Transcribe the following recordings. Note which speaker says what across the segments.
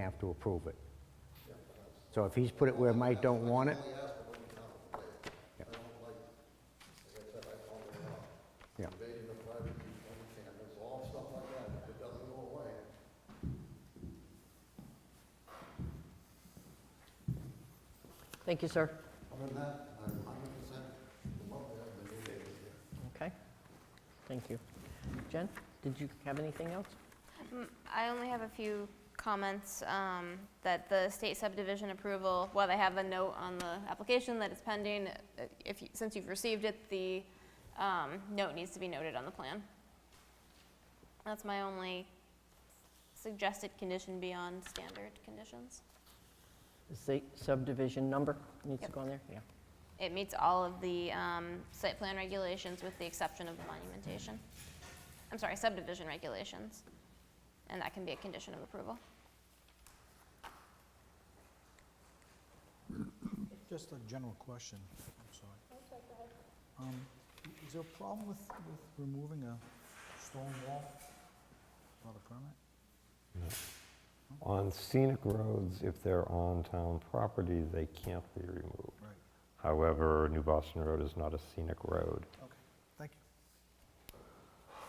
Speaker 1: have to approve it. So if he's put it where Mike don't want it... Yeah.
Speaker 2: Thank you, sir. Okay, thank you. Jen, did you have anything else?
Speaker 3: Mm, I only have a few comments, um, that the state subdivision approval, while they have a note on the application that it's pending, uh, if, you- since you've received it, the, um, note needs to be noted on the plan. That's my only suggested condition beyond standard conditions.
Speaker 2: The state subdivision number needs to
Speaker 3: Yep.
Speaker 2: go on there? Yeah.
Speaker 3: It meets all of the, um, site plan regulations with the exception of the monumentation. I'm sorry, subdivision regulations, and that can be a condition of approval.
Speaker 4: Just a general question, I'm sorry. Um, i- Is there a problem with, with removing a stone wall without a permit?
Speaker 5: On scenic roads, if they're on town property, they can't be removed.
Speaker 4: Right,
Speaker 5: However, New Boston Road is not a scenic road,
Speaker 4: okay, thank you.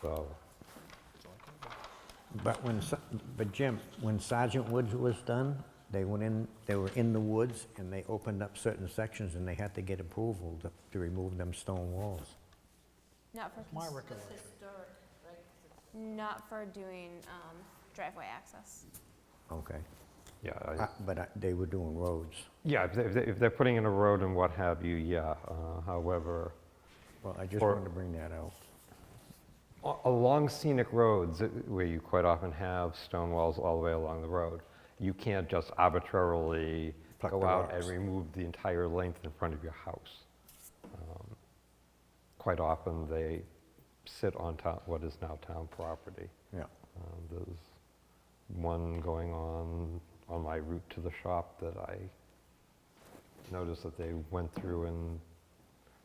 Speaker 5: so
Speaker 4: That's all I care about.
Speaker 1: But when, Sa- but Jim, when Sergeant Woods was done, they went in, they were in the woods, and they opened up certain sections, and they had to get approval to- to remove them stone walls.
Speaker 3: Not for.
Speaker 4: My
Speaker 3: cons-
Speaker 4: recollection,
Speaker 3: Not for doing um, driveway access.
Speaker 1: Okay.
Speaker 5: yeah. I-
Speaker 1: Uh, But I- they were doing roads.
Speaker 5: Yeah, if they- if they- if they're putting in a road and what have you, yeah. Uh, However,
Speaker 1: Well, I just
Speaker 5: Or-
Speaker 1: wanted to bring that out.
Speaker 5: a- along scenic roads, uh, where you quite often have stone walls all the way along the road, you can't just arbitrarily
Speaker 1: Pluck
Speaker 5: go
Speaker 1: the
Speaker 5: out and
Speaker 1: rocks.
Speaker 5: remove the entire length in front of your house. Um, Quite often, they sit on town, what is now town property.
Speaker 1: Yeah.
Speaker 5: Um, There's one going on, on my route to the shop that I noticed that they went through and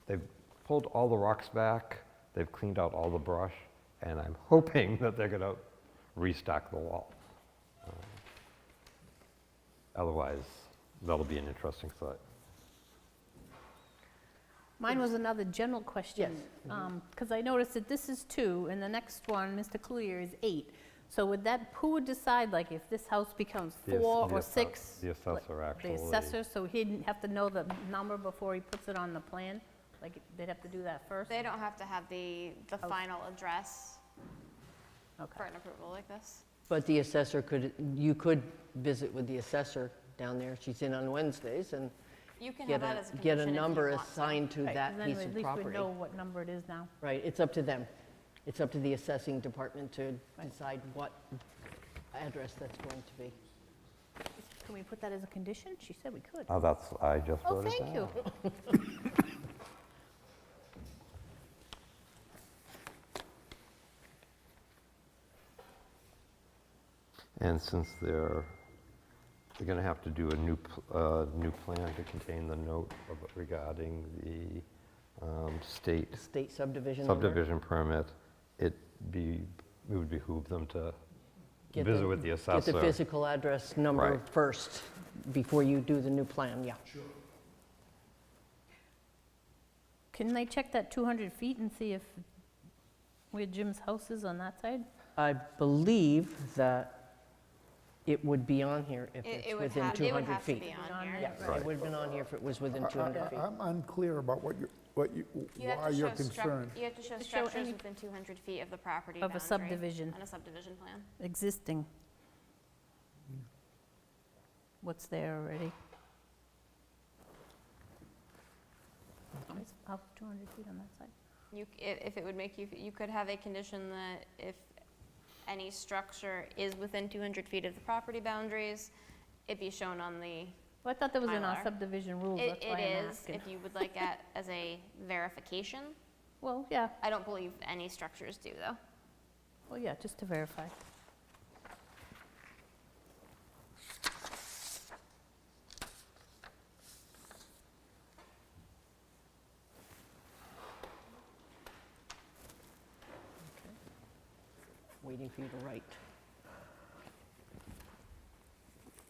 Speaker 5: they've pulled all the rocks back, they've cleaned out all the brush, and I'm hoping that they're gonna restock the wall. Um, Otherwise, that'll be an interesting sight.
Speaker 6: Mine was another general question.
Speaker 2: Yes.
Speaker 6: Because I noticed that this is two, and the next one, Mr. Clear, is eight. So would that, who would decide, like, if this house becomes
Speaker 5: The ass-
Speaker 6: four
Speaker 5: the
Speaker 6: or
Speaker 5: asso-
Speaker 6: six?
Speaker 5: the
Speaker 6: like,
Speaker 5: assessor actually-
Speaker 6: The assessor, so he'd have to know the number before he puts it on the plan? Like, they'd have to do that first?
Speaker 3: They don't have to have the, the final address
Speaker 6: Okay.
Speaker 3: for an approval like this.
Speaker 2: But the assessor could, you could visit with the assessor down there. She's in on Wednesdays and
Speaker 3: You can have
Speaker 2: get
Speaker 3: that
Speaker 2: a,
Speaker 3: as a
Speaker 2: get
Speaker 3: condition
Speaker 2: a
Speaker 3: if you
Speaker 2: number
Speaker 3: want to.
Speaker 2: assigned to
Speaker 6: Right,
Speaker 2: that
Speaker 6: and then
Speaker 2: piece
Speaker 6: we-
Speaker 2: of
Speaker 6: At least we
Speaker 2: property.
Speaker 6: know what number it is now.
Speaker 2: Right, it's up to them. It's up to the assessing department to decide what address that's going to be.
Speaker 6: Can we put that as a condition? She said we could.
Speaker 5: Oh, that's, I just
Speaker 6: Oh,
Speaker 5: wrote it
Speaker 6: thank you.
Speaker 5: And since they're, they're going to have to do a new, pl- uh, new plan to contain the note of- regarding the um, state
Speaker 2: State subdivision number?
Speaker 5: subdivision permit, it be, it would behoove them to
Speaker 2: Get the-
Speaker 5: visit with the
Speaker 2: Get the
Speaker 5: assessor.
Speaker 2: physical address number
Speaker 5: Right.
Speaker 2: first, before you do the new plan, yeah.
Speaker 6: Can they check that 200 feet and see if, where Jim's house is on that side?
Speaker 2: I believe that it would be on here if
Speaker 3: It-
Speaker 2: it's
Speaker 3: it would
Speaker 2: within
Speaker 3: have- it would
Speaker 2: 200
Speaker 3: have to
Speaker 2: feet.
Speaker 3: be
Speaker 6: On
Speaker 3: on here.
Speaker 6: there.
Speaker 2: Yeah, it would have been on here if it was within 200 feet.
Speaker 7: I'm unclear about what you, what you,
Speaker 3: You have
Speaker 7: why
Speaker 3: to
Speaker 7: you're
Speaker 3: show struc-
Speaker 7: concerned.
Speaker 3: You have to show
Speaker 6: To show
Speaker 3: structures
Speaker 6: any-
Speaker 3: within 200 feet of the property
Speaker 6: Of a
Speaker 3: boundary
Speaker 6: subdivision.
Speaker 3: On a subdivision plan.
Speaker 6: existing. What's there already? It's Up 200 feet on that side.
Speaker 3: You, c- i- if it would make you, f- you could have a condition that if any structure is within 200 feet of the property boundaries, it be shown on the
Speaker 6: Well, I thought that was in our
Speaker 3: Mylar.
Speaker 6: subdivision rules,
Speaker 3: It
Speaker 6: that's why
Speaker 3: it
Speaker 6: I'm
Speaker 3: is,
Speaker 6: asking.
Speaker 3: if you would like that as a verification.
Speaker 6: Well, yeah,
Speaker 3: I don't believe any structures do, though.
Speaker 6: well, yeah, just to verify.
Speaker 2: Waiting for you to write.